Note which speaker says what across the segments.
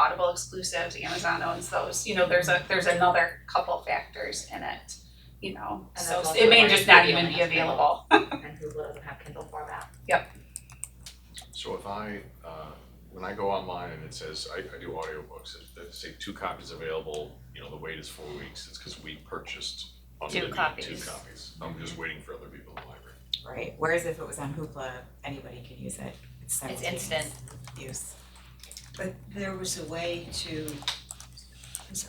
Speaker 1: Audible exclusives, Amazon owns those, you know, there's a, there's another couple factors in it, you know,
Speaker 2: And
Speaker 1: so
Speaker 2: that's also
Speaker 1: it may
Speaker 2: why
Speaker 1: just not
Speaker 2: Google
Speaker 1: even be
Speaker 2: has Kindle.
Speaker 1: available.
Speaker 2: and Google doesn't have Kindle format.
Speaker 3: So if I, uh, when I go online and it says, I, I do audiobooks, it, it say two copies available, you know, the wait is four weeks, it's cause we purchased
Speaker 2: Two
Speaker 3: unlimited two
Speaker 2: copies.
Speaker 3: copies. I'm just waiting for other people in the library.
Speaker 4: Right, whereas if it was on Hoopla, anybody could use it, it's
Speaker 2: It's
Speaker 4: simultaneous
Speaker 2: instant.
Speaker 4: use.
Speaker 5: But there was a way to,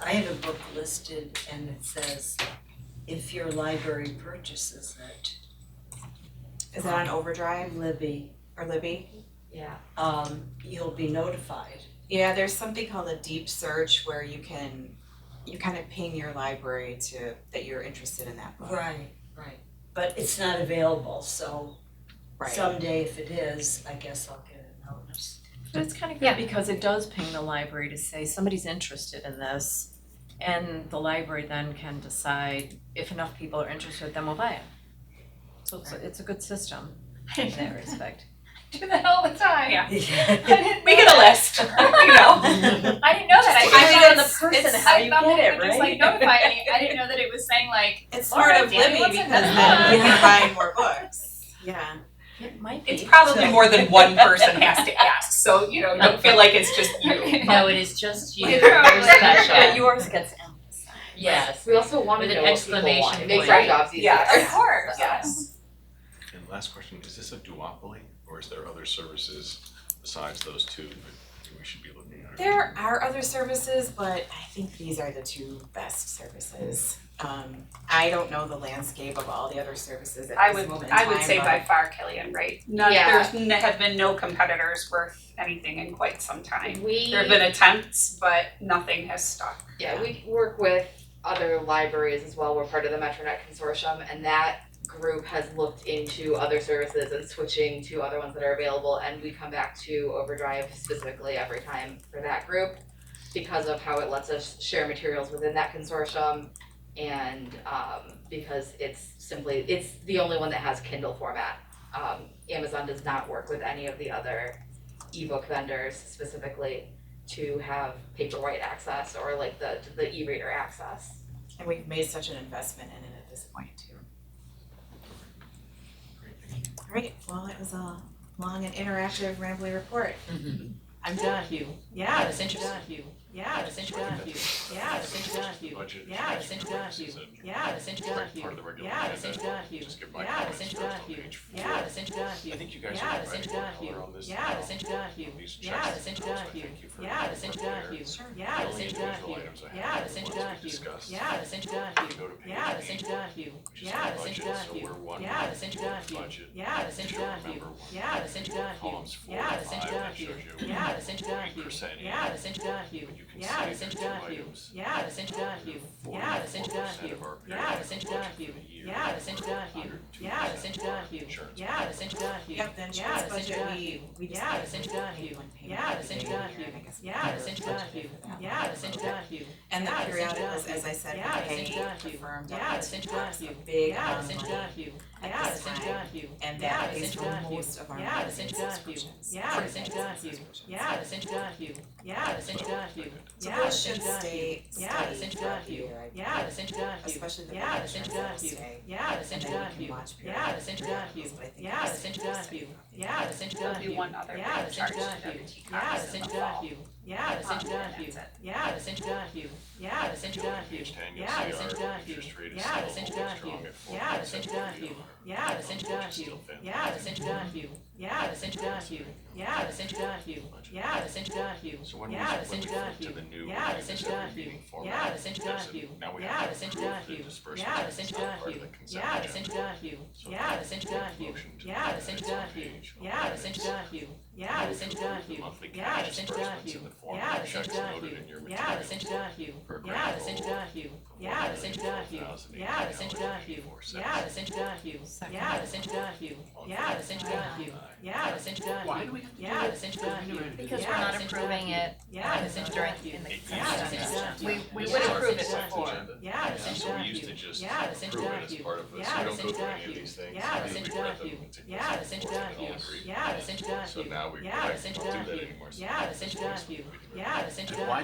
Speaker 5: I have a book listed and it says, if your library purchases it,
Speaker 4: Is that on Overdrive
Speaker 5: Libby,
Speaker 4: or Libby?
Speaker 2: Yeah.
Speaker 5: um, you'll be notified.
Speaker 4: Yeah, there's something called a deep search where you can, you kind of ping your library to, that you're interested in that book.
Speaker 5: Right, right. But it's not available, so someday if it is, I guess I'll get a notice.
Speaker 6: But it's kind of good because it does ping the library to say somebody's interested in this. And the library then can decide if enough people are interested, then we'll buy it. So it's, a- it's a good system in that respect.
Speaker 1: Do that all the time.
Speaker 6: We get a list, you know.
Speaker 1: I didn't know that, I
Speaker 6: Just I mean,
Speaker 1: found
Speaker 6: it's- it's how you
Speaker 1: I found
Speaker 6: get
Speaker 1: that
Speaker 6: it,
Speaker 1: it would just like
Speaker 6: right?
Speaker 1: notify me, I didn't know that it was saying like,
Speaker 4: It's
Speaker 1: All right,
Speaker 4: part of
Speaker 1: Danny,
Speaker 4: Libby
Speaker 1: what's
Speaker 4: because
Speaker 1: in this
Speaker 4: then you
Speaker 5: book?
Speaker 4: can buy more books. Yeah.
Speaker 6: It might be.
Speaker 1: it's probably more than one person has to ask, so, you know, don't feel like it's just you.
Speaker 2: No, it is just you,
Speaker 1: You're
Speaker 2: you're
Speaker 1: special.
Speaker 2: special.
Speaker 6: But yours gets emphasized.
Speaker 2: Yes.
Speaker 7: We also want to
Speaker 2: With an
Speaker 7: know what people
Speaker 2: exclamation
Speaker 7: want.
Speaker 2: point.
Speaker 7: Exactly. Obviously.
Speaker 1: Yes, of course, yes.
Speaker 3: And last question, is this a duopoly or is there other services besides those two that we should be looking at?
Speaker 4: There are other services, but I think these are the two best services. Um, I don't know the landscape of all the other services
Speaker 1: I
Speaker 4: at this
Speaker 1: would,
Speaker 4: moment in
Speaker 1: I would
Speaker 4: time,
Speaker 1: say
Speaker 4: but-
Speaker 1: by far Killian, right? None,
Speaker 7: Yeah.
Speaker 1: there's, n- have been no competitors worth anything in quite some time.
Speaker 7: We,
Speaker 1: There have been attempts, but nothing has stuck.
Speaker 7: yeah, we work with other libraries as well. We're part of the MetroNet consortium and that group has looked into other services and switching to other ones that are available and we come back to Overdrive specifically every time for that group because of how it lets us share materials within that consortium and um because it's simply, it's the only one that has Kindle format. Um Amazon does not work with any of the other ebook vendors specifically to have paperwhite access or like the the e-reader access.
Speaker 4: And we've made such an investment in it at this point too. Alright, well, it was a long and interactive rambly report. Mm-hmm. I'm done.
Speaker 6: Thank you.
Speaker 4: Yeah,
Speaker 6: It's
Speaker 4: I'm
Speaker 6: interesting.
Speaker 4: done.
Speaker 6: Thank you.
Speaker 4: Yeah,
Speaker 6: It's interesting. Thank you.
Speaker 4: yeah,
Speaker 6: It's interesting. Thank you.
Speaker 3: Budget,
Speaker 4: Yeah,
Speaker 3: budget
Speaker 6: it's
Speaker 3: works,
Speaker 6: done.
Speaker 3: is it
Speaker 4: yeah,
Speaker 6: It's interesting. Thank you.
Speaker 3: part of the regular
Speaker 4: Yeah,
Speaker 6: It's
Speaker 3: agenda?
Speaker 6: interesting. Thank you.
Speaker 3: Just give my
Speaker 4: Yeah,
Speaker 3: comments
Speaker 6: it's
Speaker 3: first
Speaker 6: done.
Speaker 3: on page four.
Speaker 4: yeah,
Speaker 6: It's interesting. Thank you.
Speaker 3: I think you guys
Speaker 4: Yeah,
Speaker 3: are
Speaker 4: it's
Speaker 3: providing more
Speaker 6: done.
Speaker 3: color on this.
Speaker 4: Yeah,
Speaker 6: it's done.
Speaker 3: At least
Speaker 4: Yeah,
Speaker 3: check
Speaker 6: it's
Speaker 3: the
Speaker 6: done.
Speaker 3: box. I thank you for
Speaker 4: Yeah,
Speaker 6: it's
Speaker 3: being
Speaker 6: done.
Speaker 3: clear.
Speaker 6: Sure.
Speaker 4: yeah,
Speaker 3: The only
Speaker 6: it's done.
Speaker 3: individual items I
Speaker 4: Yeah,
Speaker 3: have are
Speaker 6: it's
Speaker 3: the ones
Speaker 6: done.
Speaker 3: we discussed.
Speaker 4: yeah,
Speaker 6: It's interesting.
Speaker 3: We go to page
Speaker 4: Yeah,
Speaker 6: It's
Speaker 3: eight,
Speaker 6: interesting.
Speaker 3: which is
Speaker 4: Yeah,
Speaker 3: the
Speaker 4: it's
Speaker 3: budget, so
Speaker 6: done.
Speaker 3: we're one
Speaker 4: Yeah,
Speaker 6: it's
Speaker 3: big
Speaker 6: done.
Speaker 3: budget.
Speaker 4: yeah,
Speaker 6: It's
Speaker 3: You should
Speaker 6: done.
Speaker 3: remember one
Speaker 4: yeah,
Speaker 6: It's interesting.
Speaker 3: columns four
Speaker 4: Yeah,
Speaker 3: and
Speaker 4: it's
Speaker 3: five
Speaker 6: done.
Speaker 3: that shows you
Speaker 4: yeah,
Speaker 6: It's interesting.
Speaker 3: percent
Speaker 4: Yeah,
Speaker 6: It's interesting.
Speaker 3: but you can
Speaker 4: Yeah,
Speaker 3: see
Speaker 6: it's
Speaker 3: there's two
Speaker 6: done.
Speaker 3: items.
Speaker 4: yeah,
Speaker 6: It's interesting.
Speaker 4: Yeah,
Speaker 6: it's
Speaker 3: Forty-four percent
Speaker 6: done.
Speaker 3: of our
Speaker 4: Yeah,
Speaker 3: periodic
Speaker 6: it's
Speaker 3: budget
Speaker 6: done.
Speaker 3: for the year.
Speaker 4: yeah,
Speaker 6: It's interesting.
Speaker 3: Hundred and two
Speaker 4: Yeah,
Speaker 6: It's
Speaker 3: percent
Speaker 6: interesting.
Speaker 3: insurance.
Speaker 4: yeah.
Speaker 6: It's interesting.
Speaker 4: Yep, the insurance budget, we, we just.
Speaker 6: Yeah, it's done.
Speaker 4: paid one payment
Speaker 6: Yeah,
Speaker 4: at the
Speaker 6: it's
Speaker 4: beginning of the
Speaker 6: done.
Speaker 4: year, and I guess we
Speaker 6: Yeah,
Speaker 4: never
Speaker 6: it's
Speaker 4: budgeted
Speaker 6: done.
Speaker 4: for that.
Speaker 6: Yeah, it's interesting.
Speaker 4: And the
Speaker 6: Yeah, it's
Speaker 4: periodic
Speaker 6: done.
Speaker 4: was, as I said,
Speaker 6: Yeah,
Speaker 4: we
Speaker 6: it's
Speaker 4: paid,
Speaker 6: done.
Speaker 4: confirmed,
Speaker 6: Yeah,
Speaker 4: up
Speaker 6: it's
Speaker 4: to two bucks, a
Speaker 6: done.
Speaker 4: big
Speaker 6: Yeah,
Speaker 4: amount
Speaker 6: it's
Speaker 4: of money.
Speaker 6: interesting.
Speaker 4: at
Speaker 6: Yeah,
Speaker 4: this
Speaker 6: it's
Speaker 4: time,
Speaker 6: interesting.
Speaker 4: and
Speaker 6: Yeah,
Speaker 4: that
Speaker 6: it's
Speaker 4: pays for
Speaker 6: done.
Speaker 4: most of our
Speaker 6: Yeah, it's
Speaker 4: magazine
Speaker 6: done.
Speaker 4: subscriptions.
Speaker 6: Yeah,
Speaker 4: for
Speaker 6: it's
Speaker 4: magazine
Speaker 6: done.
Speaker 4: subscriptions.
Speaker 6: Yeah, it's interesting. Yeah, it's interesting.
Speaker 4: So
Speaker 6: Yeah,
Speaker 4: those
Speaker 6: it's
Speaker 4: should
Speaker 6: done.
Speaker 4: stay,
Speaker 6: Yeah, it's
Speaker 4: stay
Speaker 6: done.
Speaker 4: throughout the year, I
Speaker 6: Yeah,
Speaker 4: believe.
Speaker 6: it's interesting.
Speaker 4: especially the
Speaker 6: Yeah, it's
Speaker 4: big ones,
Speaker 6: done.
Speaker 4: they'll stay.
Speaker 6: Yeah, it's
Speaker 4: And then you can
Speaker 6: interesting.
Speaker 4: watch
Speaker 6: Yeah,
Speaker 4: periodic
Speaker 6: it's done.
Speaker 4: periodicals, but I think
Speaker 6: Yeah,
Speaker 4: it's
Speaker 6: it's
Speaker 4: gonna
Speaker 6: done.
Speaker 4: stay throughout the year.
Speaker 6: Yeah, it's interesting.
Speaker 1: There'll be one other
Speaker 6: Yeah, it's
Speaker 1: big charge to
Speaker 6: done.
Speaker 1: WT
Speaker 6: Yeah,
Speaker 1: Cox
Speaker 6: it's
Speaker 1: in the fall.
Speaker 6: interesting. Yeah, it's
Speaker 1: Um, and
Speaker 6: interesting.
Speaker 1: that's it.
Speaker 6: Yeah, it's interesting. Yeah, it's interesting.
Speaker 3: Page ten, you'll
Speaker 6: Yeah, it's
Speaker 3: see our
Speaker 6: interesting.
Speaker 3: interest rate is
Speaker 6: Yeah, it's
Speaker 3: still holding
Speaker 6: interesting.
Speaker 3: strong at four
Speaker 6: Yeah, it's
Speaker 3: percent.
Speaker 6: interesting. Yeah, it's interesting. Yeah, it's interesting. Yeah, it's interesting. Yeah, it's interesting. Yeah, it's interesting.
Speaker 3: So when we,
Speaker 6: Yeah, it's
Speaker 3: when we flip to
Speaker 6: interesting.
Speaker 3: the new,
Speaker 6: Yeah, it's
Speaker 3: this every
Speaker 6: interesting.
Speaker 3: meeting
Speaker 6: Yeah,
Speaker 3: format,
Speaker 6: it's
Speaker 3: there's a,
Speaker 6: interesting.
Speaker 3: now we
Speaker 6: Yeah,
Speaker 3: have
Speaker 6: it's
Speaker 3: to approve the
Speaker 6: interesting.
Speaker 3: disbursement,
Speaker 6: Yeah, it's
Speaker 3: it's not part of
Speaker 6: interesting.
Speaker 3: the consent
Speaker 6: Yeah, it's
Speaker 3: agenda.
Speaker 6: interesting.
Speaker 3: So
Speaker 6: Yeah,
Speaker 3: if
Speaker 6: it's
Speaker 3: we make a
Speaker 6: interesting.
Speaker 3: motion to
Speaker 6: Yeah,
Speaker 3: add
Speaker 6: it's
Speaker 3: it to
Speaker 6: interesting.
Speaker 3: page
Speaker 6: Yeah,
Speaker 3: eleven,
Speaker 6: it's interesting. Yeah, it's
Speaker 3: The
Speaker 6: interesting.
Speaker 3: monthly
Speaker 6: Yeah,
Speaker 3: cash
Speaker 6: it's
Speaker 3: disbursements in
Speaker 6: interesting.
Speaker 3: the form
Speaker 6: Yeah,
Speaker 3: of
Speaker 6: it's
Speaker 3: checks noted
Speaker 6: interesting.
Speaker 3: in your
Speaker 6: Yeah, it's
Speaker 3: materials
Speaker 6: interesting.
Speaker 3: for a
Speaker 6: Yeah, it's
Speaker 3: grand total
Speaker 6: interesting.
Speaker 3: of
Speaker 6: Yeah, it's interesting.
Speaker 3: $1,084.84.
Speaker 6: Yeah, it's interesting. Yeah, it's interesting. Yeah, it's interesting. Yeah, it's interesting. Yeah, it's interesting.
Speaker 8: Why do we have to do
Speaker 6: Yeah,
Speaker 8: it?
Speaker 6: it's interesting.
Speaker 2: Because
Speaker 6: Yeah,
Speaker 2: we're not
Speaker 6: it's
Speaker 2: approving
Speaker 6: interesting.
Speaker 2: it
Speaker 6: Yeah, it's
Speaker 2: during,
Speaker 6: interesting.
Speaker 2: in the
Speaker 3: It
Speaker 2: consent
Speaker 6: Yeah, it's
Speaker 2: agenda.
Speaker 6: interesting.
Speaker 2: We, we
Speaker 6: Yeah,
Speaker 2: would
Speaker 6: it's
Speaker 2: approve it
Speaker 6: interesting.
Speaker 2: before.
Speaker 3: Agenda.
Speaker 6: Yeah, it's
Speaker 3: So we used to
Speaker 6: interesting.
Speaker 3: just
Speaker 6: Yeah, it's
Speaker 3: through it as part of this, you
Speaker 6: Yes,
Speaker 3: don't go
Speaker 6: and
Speaker 3: through any of
Speaker 6: Donahue.
Speaker 3: these things.
Speaker 6: Yes,
Speaker 3: You
Speaker 6: and
Speaker 3: read them
Speaker 6: Donahue.
Speaker 3: and take them
Speaker 6: Yes,
Speaker 3: forward
Speaker 6: and
Speaker 3: and all
Speaker 6: Donahue.
Speaker 3: agree.
Speaker 6: Yes, and
Speaker 3: "Oh, So
Speaker 6: Donahue.
Speaker 3: now we, we
Speaker 6: Yes,
Speaker 3: don't
Speaker 6: and
Speaker 3: do that
Speaker 6: Donahue.
Speaker 3: anymore. So
Speaker 6: Yes, and
Speaker 3: we can-
Speaker 6: Donahue.
Speaker 3: we can-
Speaker 6: Yes, and
Speaker 9: Why